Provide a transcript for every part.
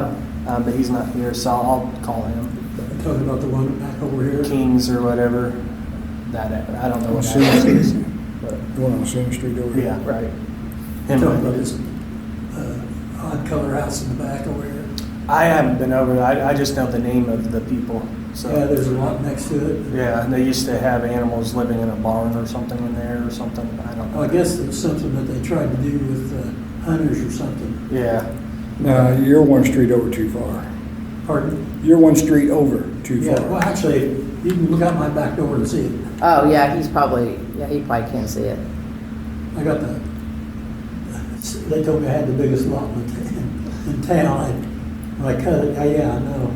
time, Uh, but he's not here, so I'll call him. Talking about the one back over here. Kings or whatever. That I don't know On what that Sims, is. the one on Sims Street over Yeah, here. right. Talking about Him. this uh, odd color house in the back over here. I haven't been over. I, I just know the name of the people. So Yeah, there's a lot next to it. Yeah, and they used to have animals living in a barn or something in there or something. I don't know. I guess it's something that they tried to do with uh, hunters or something. Yeah, Now, you're one street over too far. Pardon? You're one street over too Yeah, well, far. actually, you can look out my back door and see it. Oh, yeah, he's probably, yeah, he probably can't see it. I got the, they told me I had the biggest lot in, t- in town. I- When I cut it, I- yeah, I know.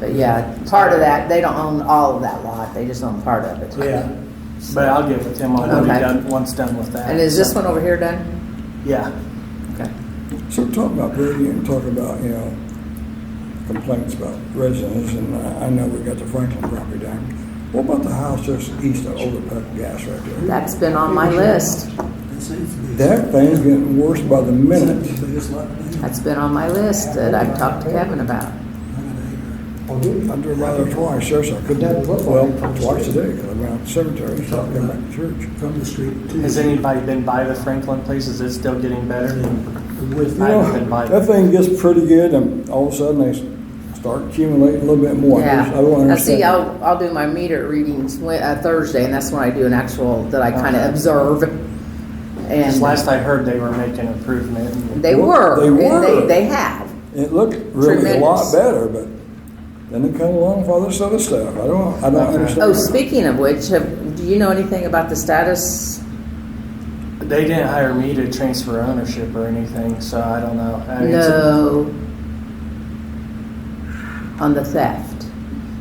But yeah, part of that, they don't own all of that lot, they just own part of it. Yeah, but I'll get with him on what he Okay. done once done with that. And is this one over here done? Yeah, Okay. So talk about Brady and talk about, you know, complaints about residents, and I I know we got the Franklin property down. What about the house just east of Overpuck Gas right there? That's been on my list. that seems to be. That thing's getting worse by the minute. Seems to be Biggest lot in town. That's been on my list that I've talked to Kevin about. I got an acre. I drove by there twice, yes, I couldn't, well, twice a day, because I'm out in the cemetery, so I come back to church. From the street to. has anybody been by the Franklin place? Is it still getting better? And With, You I haven't know, been by That there. thing gets pretty good, and all of a sudden, they s- start accumulating a little bit more. I just- I don't Yeah. I see, understand. I'll, I'll do my meter readings Wed- uh, Thursday, and that's when I do an actual, that I kind of observe. 'Cause last And I heard, they were making improvement. and- they were, They and they, were. they have. It looked really a lot oh, Tremendous. better, but then it come along with all this other stuff. I don't, I don't Oh, understand. speaking of which, have, do you know anything about the status? They didn't hire me to transfer ownership or anything, so I don't know. I mean, it's a- No. On the theft.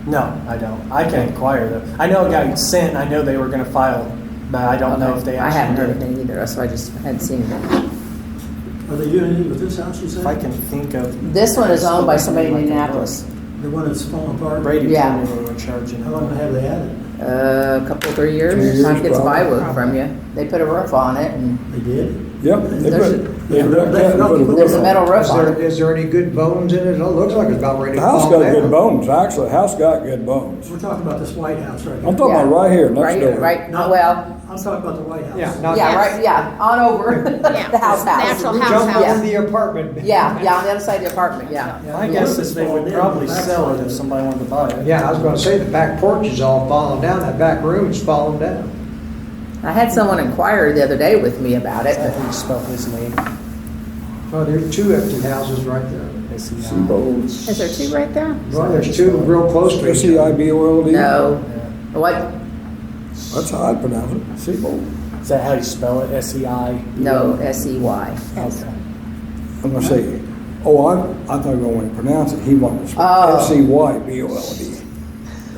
no, I don't. I can inquire though. I know it got sent. I know they were going to file, but I don't know if they I actually haven't heard did it. anything either, so I just hadn't seen it. are they doing anything with this house, you said? If I can think of This one is owned by somebody in Indianapolis, The one that's falling apart? Brady Yeah. told me they were charging. How long have they had it? uh, a couple, three Three years, years, time gets probably. bywood from you. They put a roof on it and They did? Yep, they There's a- put, they Yeah, wrecked that and there's put a nothing- roof there's a on it. metal roof Is on it. there, is there any good bones in it? It looks like it's about ready The to house fall got down. good bones, actually, the house got good bones. We're talking about this White House right I'm here. talking about Yeah. right here, Right, next door. right, Not- well, I'm talking about the White House. Yeah, not yeah, that. right, yeah, on over, the house house. Natural house Jump house. on the apartment. Yeah, yeah, on the other side of the apartment, yeah. Yeah, My the guess roof is they falling would in on probably the sell it backside. if somebody wanted to buy it. Yeah, I was gonna say, the back porch is all falling down, that back room's falling down. I had someone inquire the other day with me about it, I but think you spelled his name. Well, there's Oh, two empty houses right there. E Some bones. Is there two right there? Well, there's two real close to each other. S-E-I-B-O-L-D? no. Yeah. What, That's how I pronounce it, Seabold. Is that how you spell it? S E I? no, E S-E-Y. Okay. I'm gonna say, oh, I, I thought I wanted to pronounce it, he wanted to spell Oh. S E Y B O L D.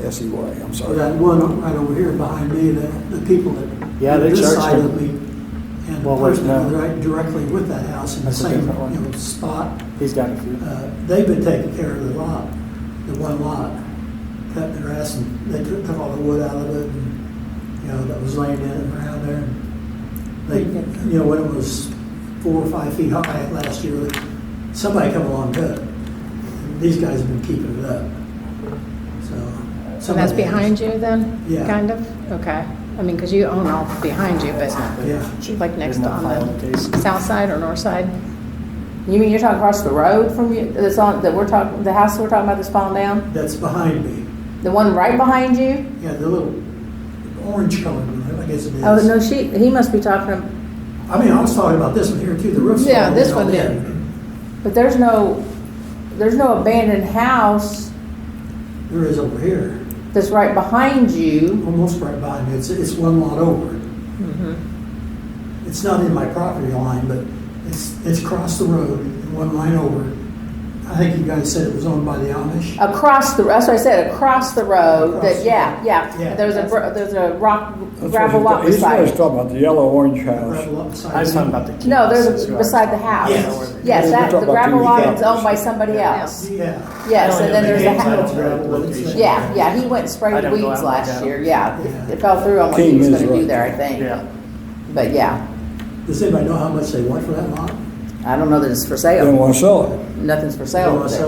S E Y, I'm Or sorry. that one right over here behind me, the, the people that. Yeah, they This charged side them. of me, and the Well, wait, person that no. right directly with that house in the That's a same, different one. you know, spot, He's got a few. uh, they've been taking care of the lot, the one lot, cutting the grass, and they took, took all the wood out of it, and, you know, that was laying in and around there. They, you know, when it was four or five feet high last year, somebody come along and cut it. And These guys have been keeping it up, so. So that's somebody has- behind you then? Yeah. Kind of? Okay. I mean, because you own all behind you, but Yeah. like next Isn't that on filed case? the south side or north side? You mean you're talking across the road from you, that's on, that we're talking, the house we're talking about that's falling down? That's behind me. The one right behind you? Yeah, the little orange colored one, I guess it is. Oh, no, she, he must be talking, I mean, I was talking about this one here too, the roof's. Yeah, falling this down one there. but there's no, there's no abandoned house There is over here, that's right behind you. almost right behind me. It's, it's one lot over. It's not in my property line, but it's, it's across the road, and one line over. I think you guys said it was owned by the Amish. Uh, Across the, that's what I said, across the road, Across that, the yeah, road. yeah. Yeah. There's a, br- there's a rock That's gravel what lot he's- beside He's it. talking about the yellow orange Right house. up beside I was talking about the. me. key No, there's houses, a, who I- beside the house. Yes. Yes, We're that, the talking about gravel two lot houses. is owned by somebody Yeah. else. Yeah. Yes, I don't and then know Oh, the there's a names, I house. don't know the location. Yeah, yeah, he went and I sprayed don't go weeds out like last that. year, yeah. Yeah. It- It fell through on what he King was is gonna do right. there, I think. Yeah. But yeah, Does anybody know how much they want for that lot? I don't know that it's for They don't sale. wanna sell it. Nothing's for They sale. wanna there.